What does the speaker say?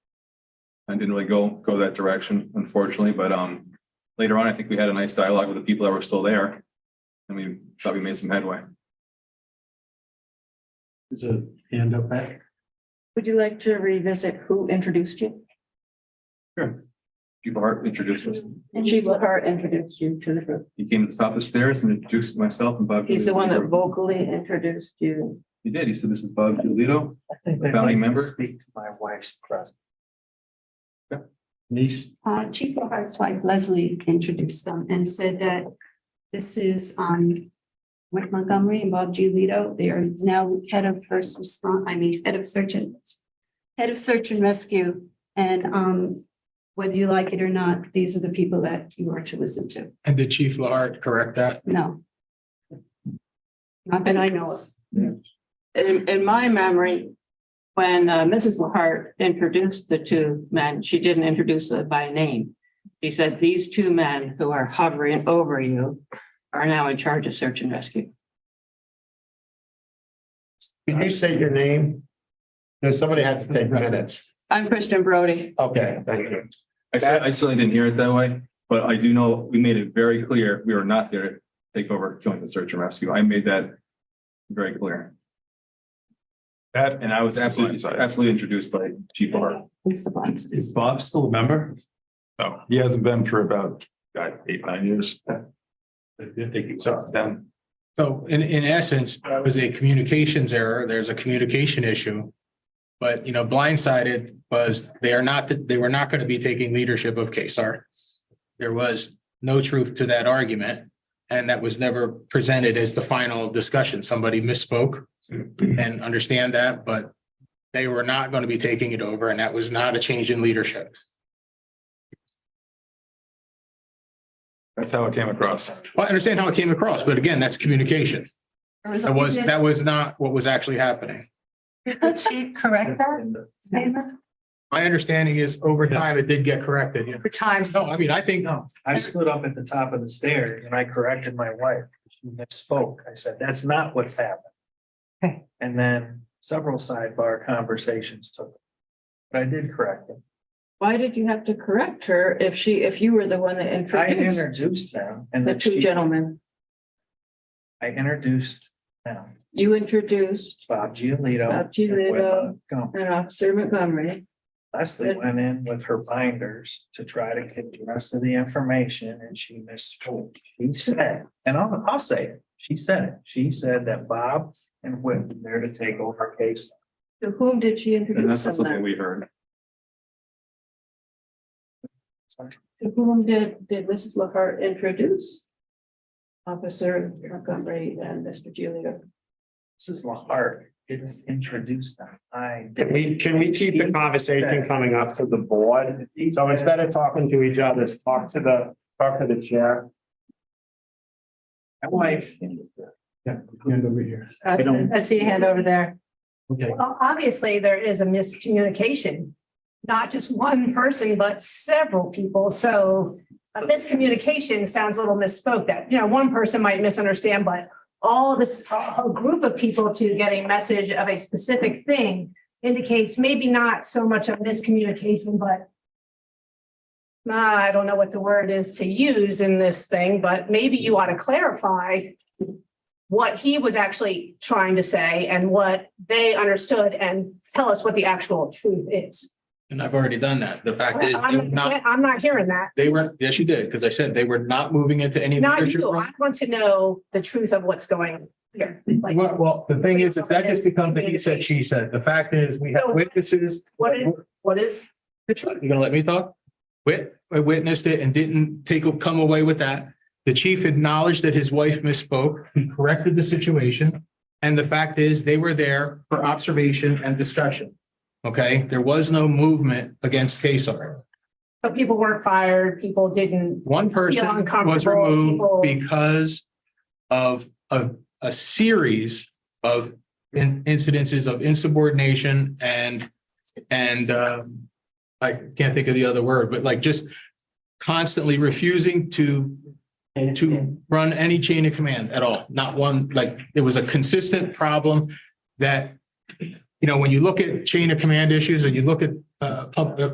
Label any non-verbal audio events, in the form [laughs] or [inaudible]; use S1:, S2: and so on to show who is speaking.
S1: I didn't really go, go that direction, unfortunately, but, um, later on, I think we had a nice dialogue with the people that were still there. And we thought we made some headway.
S2: Is a hand up back?
S3: Would you like to revisit who introduced you?
S1: People are introduced us.
S3: And Chief Lahar introduced you to the group.
S1: He came to the top of the stairs and introduced myself and Bob.
S3: He's the one that
S1: Giulito.
S3: vocally introduced you.
S1: He did. He said, this is Bob Giulito.
S4: I think
S1: A
S4: they
S1: family
S4: might
S1: member?
S4: Speak to my wife's present.
S2: Niece,
S5: Uh, Chief of Arts wife Leslie introduced them and said that this is, um, Mike Montgomery and Bob Giolito. They are now head of first response, I mean, head of search and head of search and rescue. And, um, whether you like it or not, these are the people that you are to listen to.
S6: And did Chief Lard correct that?
S5: No. Not that I know of.
S3: In, in my memory, when uh, Mrs. Lahar introduced the two men, she didn't introduce them by name. She said, these two men who are hovering over you are now in charge of search and rescue.
S7: Did you say your name? Because somebody had to take
S2: [laughs]
S7: minutes.
S3: I'm Kristen Brody.
S7: Okay, thank you.
S1: I said, I certainly didn't hear it that way, but I do know we made it very clear we were not there to take over joint the search and rescue. I made that very clear.
S8: That,
S1: And I was absolutely, absolutely introduced by Chief Bar.
S5: It's the blacks.
S2: is Bob still a member?
S8: no, he hasn't been for about, God, eight, nine years. So then,
S6: So in, in essence, that was a communications error. There's a communication issue. But, you know, blindsided was they are not, they were not going to be taking leadership of KSAR. There was no truth to that argument. And that was never presented as the final discussion. Somebody misspoke and understand that, but they were not going to be taking it over. And that was not a change in leadership.
S8: that's how it came across.
S6: Well, I understand how it came across, but again, that's communication. That was, that was not what was actually happening.
S5: Did she correct that statement?
S6: My understanding is over time, it did get corrected. yeah.
S4: For times.
S6: So, I mean, I think,
S4: No, I stood up at the top of the stairs and I corrected my wife. She misspoke. I said, that's not what's happened.
S3: [laughs]
S5: Okay.
S4: And then several sidebar conversations took. But I did correct them.
S3: Why did you have to correct her if she, if you were the one that
S4: I
S3: introduced
S4: introduced them and
S3: the
S4: then
S3: two
S4: she,
S3: gentlemen?
S4: I introduced them,
S3: You introduced
S4: Bob Giolito.
S3: Bob Giolito.
S4: and Whitman Montgomery.
S3: and Officer uh, Montgomery.
S4: Leslie went in with her binders to try to get the rest of the information and she misspoke. She said, and I'll, I'll say it, she said it. She said that Bob and Whit were there to take over case.
S3: To whom did she
S1: And
S3: introduce
S1: that's not
S3: them
S1: something
S3: then?
S1: we heard.
S3: To whom did, did Mrs. Lockhart introduce? Officer Montgomery and Mr. Giulio.
S4: Mrs. Lahart didn't introduce them. I.
S7: Can we, can we keep the conversation coming up to the board? So instead of talking to each other, talk to the, talk to the chair.
S4: My wife.
S2: Yeah, hand over here.
S4: I
S9: I
S4: don't-
S9: I see a hand over there.
S2: Okay,
S9: Well, obviously, there is a miscommunication, not just one person, but several people. So a miscommunication sounds a little misspoke that, you know, one person might misunderstand, but all this, a whole group of people to get a message of a specific thing indicates maybe not so much a miscommunication, but uh, I don't know what the word is to use in this thing, but maybe you ought to clarify what he was actually trying to say and what they understood and tell us what the actual truth is.
S6: and I've already done that. The fact is, they were
S9: I'm
S6: not,
S9: I'm not hearing that.
S6: they were, yes, you did, because I said they were not moving into any.
S9: Not
S6: leadership
S9: you.
S6: role.
S9: I want to know the truth of what's going on here. Like,
S6: Well, well, the thing is, if that just becomes a he said, she said, the fact is, we have witnesses.
S9: what is, what is
S6: the truth. You gonna let me talk? Wit, I witnessed it and didn't take, come away with that. The chief acknowledged that his wife misspoke. He corrected the situation. And the fact is, they were there for observation and discussion. Okay, there was no movement against KSAR.
S9: But people weren't fired, people didn't,
S6: One person was
S9: uncomfortable,
S6: removed
S9: people-
S6: because of a, a series of in- incidences of insubordination and, and, um, I can't think of the other word, but like just constantly refusing to, to run any chain of command at all. Not one, like, there was a consistent problem that, you know, when you look at chain of command issues and you look at, uh, pub- uh,